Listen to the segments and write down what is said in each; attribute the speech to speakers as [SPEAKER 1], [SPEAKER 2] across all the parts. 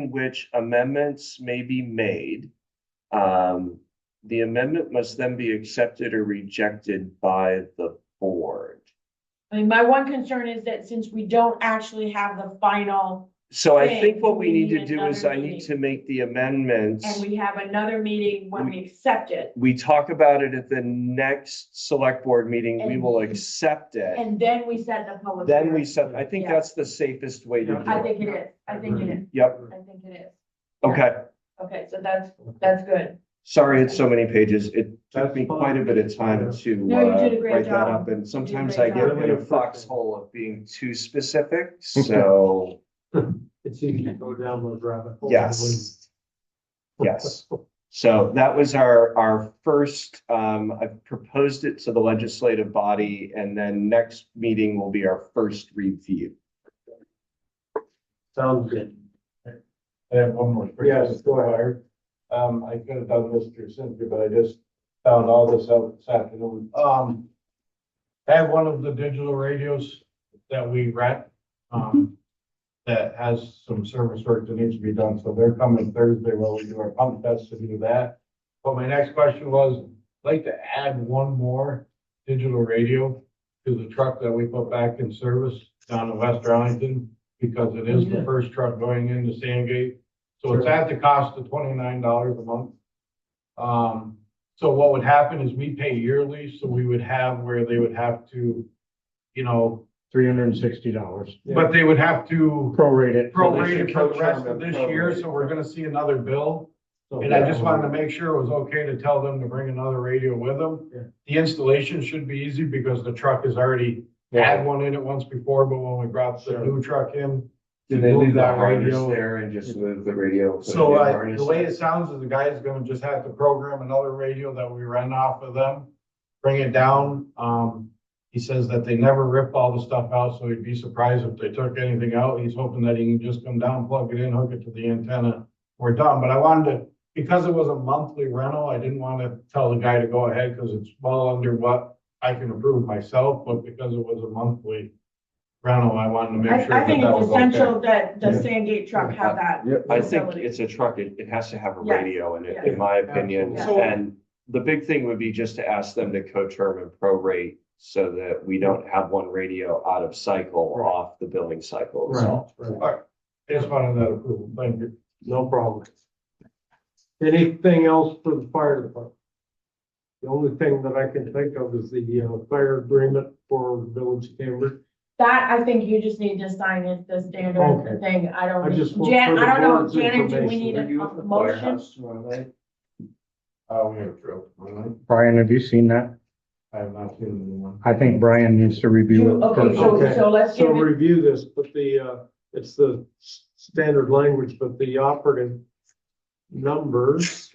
[SPEAKER 1] in which amendments may be made. Um, the amendment must then be accepted or rejected by the board.
[SPEAKER 2] I mean, my one concern is that since we don't actually have the final
[SPEAKER 1] So I
[SPEAKER 2] Okay,
[SPEAKER 1] think what we need to
[SPEAKER 2] need
[SPEAKER 1] do is I
[SPEAKER 2] another
[SPEAKER 1] need
[SPEAKER 2] meeting.
[SPEAKER 1] to make the amendments.
[SPEAKER 2] and we have another meeting when we accept it,
[SPEAKER 1] We talk about it at the next select board meeting, we
[SPEAKER 2] And-
[SPEAKER 1] will accept it.
[SPEAKER 2] and then we set the public.
[SPEAKER 1] Then we
[SPEAKER 2] hearing.
[SPEAKER 1] set, I think
[SPEAKER 2] Yeah.
[SPEAKER 1] that's the safest way to
[SPEAKER 2] I
[SPEAKER 1] do it.
[SPEAKER 2] think it is, I think it is,
[SPEAKER 1] Yep,
[SPEAKER 2] I think it is.
[SPEAKER 1] okay.
[SPEAKER 2] Okay, so that's, that's good.
[SPEAKER 1] Sorry, it's so many pages. It took
[SPEAKER 3] That's
[SPEAKER 1] me quite a
[SPEAKER 3] fine.
[SPEAKER 1] bit of time to
[SPEAKER 2] No, you
[SPEAKER 1] uh,
[SPEAKER 2] did a great
[SPEAKER 1] write that
[SPEAKER 2] job.
[SPEAKER 1] up, and sometimes I
[SPEAKER 2] great
[SPEAKER 1] get
[SPEAKER 3] job.
[SPEAKER 1] in a foxhole of being too specific, so,
[SPEAKER 3] It's easy to go down those rabbit holes.
[SPEAKER 1] yes. Yes, so that was our, our first, um, I proposed it to the legislative body, and then next meeting will be our first review.
[SPEAKER 3] Sounds good.
[SPEAKER 4] I have one more.
[SPEAKER 3] Yes, go ahead.
[SPEAKER 4] Um, I could have done Mr. Cynthia, but I just found all this out this afternoon. Um, I have one of the digital radios that we rent, um, that has some service work that needs to be done, so they're coming Thursday while we do our pump test to do that. But my next question was, I'd like to add one more digital radio to the truck that we put back in service down in West Arlington, because it is the
[SPEAKER 3] Yeah.
[SPEAKER 4] first truck going into Sandgate. So it's at the cost of twenty-nine dollars a month. Um, so what would happen is we pay yearly, so we would have where they would have to, you know. Three hundred and sixty dollars. But they would have to
[SPEAKER 3] Prorate it.
[SPEAKER 4] prorate it for the rest of this year, so we're gonna see another bill. And I just
[SPEAKER 5] um,
[SPEAKER 4] wanted to make sure it was okay to tell them to bring another radio with them.
[SPEAKER 3] Yeah.
[SPEAKER 4] The installation should be easy because the truck has already
[SPEAKER 3] Yeah.
[SPEAKER 4] had one in it once before, but when we brought the
[SPEAKER 3] Sure.
[SPEAKER 4] new truck in,
[SPEAKER 1] Do they leave
[SPEAKER 4] Move
[SPEAKER 1] that
[SPEAKER 4] that
[SPEAKER 1] harness
[SPEAKER 4] radio.
[SPEAKER 1] there and just move the radio? put a
[SPEAKER 4] So
[SPEAKER 1] new
[SPEAKER 4] uh,
[SPEAKER 1] harness
[SPEAKER 4] the way
[SPEAKER 1] in?
[SPEAKER 4] it sounds is the guy's gonna just have to program another radio that we rent off of them, bring it down. Um, he says that they never rip all the stuff out, so he'd be surprised if they took anything out. He's hoping that he can just come down, plug it in, hook it to the antenna. We're done, but I wanted to, because it was a monthly rental, I didn't wanna tell the guy to go ahead, cause it's well under what I can approve myself, but because it was a monthly rental, I wanted to
[SPEAKER 2] I,
[SPEAKER 4] make sure
[SPEAKER 2] I
[SPEAKER 4] that
[SPEAKER 2] think
[SPEAKER 4] that was
[SPEAKER 2] it's
[SPEAKER 4] okay.
[SPEAKER 2] essential that the
[SPEAKER 3] Yeah.
[SPEAKER 2] Sandgate truck have that.
[SPEAKER 1] I think
[SPEAKER 2] facility.
[SPEAKER 1] it's a truck, it, it has to have a
[SPEAKER 2] Yes,
[SPEAKER 1] radio in it,
[SPEAKER 2] yes.
[SPEAKER 1] in my opinion,
[SPEAKER 2] Absolutely.
[SPEAKER 1] and the big thing would be just to ask them to co-term and prorate so that we don't have one radio out of cycle
[SPEAKER 3] Right.
[SPEAKER 1] off the billing cycle
[SPEAKER 3] Right,
[SPEAKER 1] itself.
[SPEAKER 3] right.
[SPEAKER 4] I Just wanted that approval, thank you.
[SPEAKER 3] No problem. Anything else for the fire department? The only thing that I can think of is the, uh, fire agreement for Village Cambridge.
[SPEAKER 2] That, I think you just need to sign it, the standard
[SPEAKER 3] Okay.
[SPEAKER 2] thing, I
[SPEAKER 3] I
[SPEAKER 2] don't,
[SPEAKER 3] just
[SPEAKER 2] need-
[SPEAKER 3] want
[SPEAKER 2] Jan,
[SPEAKER 3] for
[SPEAKER 2] I
[SPEAKER 3] the
[SPEAKER 2] don't
[SPEAKER 3] board's
[SPEAKER 2] know, Janet, do we
[SPEAKER 3] information.
[SPEAKER 2] need a
[SPEAKER 3] Are you
[SPEAKER 2] a motion?
[SPEAKER 4] Uh, we have drill, really?
[SPEAKER 5] Brian, have you seen that?
[SPEAKER 4] I have not seen anyone.
[SPEAKER 5] I think Brian needs to review
[SPEAKER 2] You-
[SPEAKER 5] it
[SPEAKER 2] Okay,
[SPEAKER 5] first.
[SPEAKER 2] so,
[SPEAKER 3] Okay.
[SPEAKER 2] so let's
[SPEAKER 3] So
[SPEAKER 2] give it,
[SPEAKER 3] review this, but the, uh, it's the s- standard language, but the operative numbers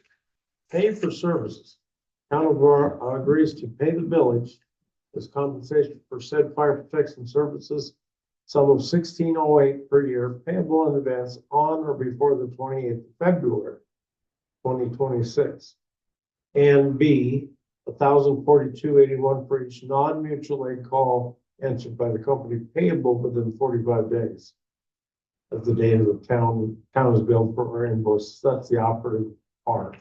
[SPEAKER 3] pay for services. Town of War agrees to pay the village as compensation for said fire protection services, sum of sixteen oh eight per year payable in advance on or before the twenty-eighth of February, twenty twenty-six. And B, thousand forty-two eighty-one for each non-mutual aid call answered by the company payable within forty-five days of the date of the town, town is billed for or invoice. That's the operative part.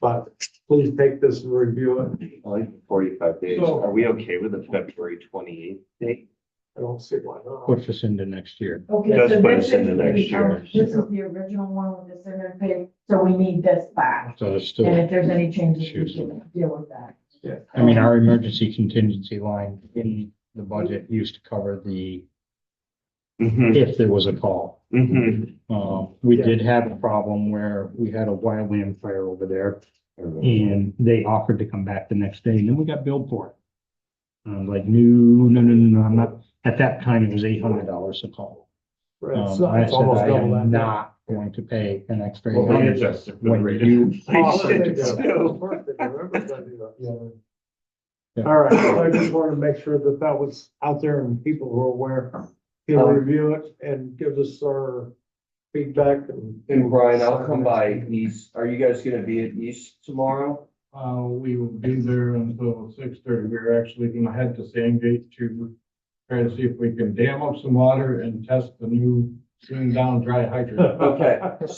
[SPEAKER 3] But please take this and review it.
[SPEAKER 1] I like forty-five days,
[SPEAKER 3] So-
[SPEAKER 1] are we okay with the February twenty-eighth date?
[SPEAKER 3] I don't see why not.
[SPEAKER 5] Push us into next year.
[SPEAKER 2] okay.
[SPEAKER 1] Does
[SPEAKER 2] so
[SPEAKER 1] put
[SPEAKER 2] this
[SPEAKER 1] us into
[SPEAKER 2] is
[SPEAKER 1] next
[SPEAKER 2] the-
[SPEAKER 1] year.
[SPEAKER 2] um, This is the original one with the standard pay, so we need this back,
[SPEAKER 5] So it's
[SPEAKER 2] and
[SPEAKER 5] still,
[SPEAKER 2] if there's any changes, we
[SPEAKER 5] Excuse me.
[SPEAKER 2] can deal with that.
[SPEAKER 3] Yeah.
[SPEAKER 5] I mean, our emergency contingency line in the budget used to cover the,
[SPEAKER 1] Mm-hmm,
[SPEAKER 5] if there was a call.
[SPEAKER 1] mm-hmm.
[SPEAKER 5] Uh, we
[SPEAKER 3] Yeah.
[SPEAKER 5] did have a problem where we had a wildland fire over there
[SPEAKER 1] Mm-hmm.
[SPEAKER 5] and they offered to come back the next day and then we got billed for it. And I was like, no, no, no, no, no, I'm not, at that time it was eight hundred dollars a call.
[SPEAKER 3] Right,
[SPEAKER 5] Um,
[SPEAKER 3] so
[SPEAKER 5] I
[SPEAKER 3] it's
[SPEAKER 5] said,
[SPEAKER 3] almost
[SPEAKER 5] I
[SPEAKER 3] double
[SPEAKER 5] am
[SPEAKER 3] that now.
[SPEAKER 5] not going to pay an extra.
[SPEAKER 1] Well, we
[SPEAKER 5] $800.
[SPEAKER 1] adjusted for the
[SPEAKER 5] When
[SPEAKER 1] rate
[SPEAKER 5] you
[SPEAKER 1] inflation.
[SPEAKER 3] Of course
[SPEAKER 5] offer
[SPEAKER 3] they
[SPEAKER 5] to
[SPEAKER 3] do.
[SPEAKER 5] go.
[SPEAKER 3] Of course they do. Everybody does.
[SPEAKER 5] Yeah.
[SPEAKER 3] All right, so I just wanted to make sure that that was out there and people were aware. He'll
[SPEAKER 1] Um,
[SPEAKER 3] review it and give us our feedback and.
[SPEAKER 1] And Brian, I'll come by East, are you guys gonna be at East tomorrow?
[SPEAKER 4] Uh, we will be there until six thirty. We're actually gonna head to Sandgate to try to see if we can dam up some water and test the new
[SPEAKER 5] Soon down dry hydrant.
[SPEAKER 4] Okay.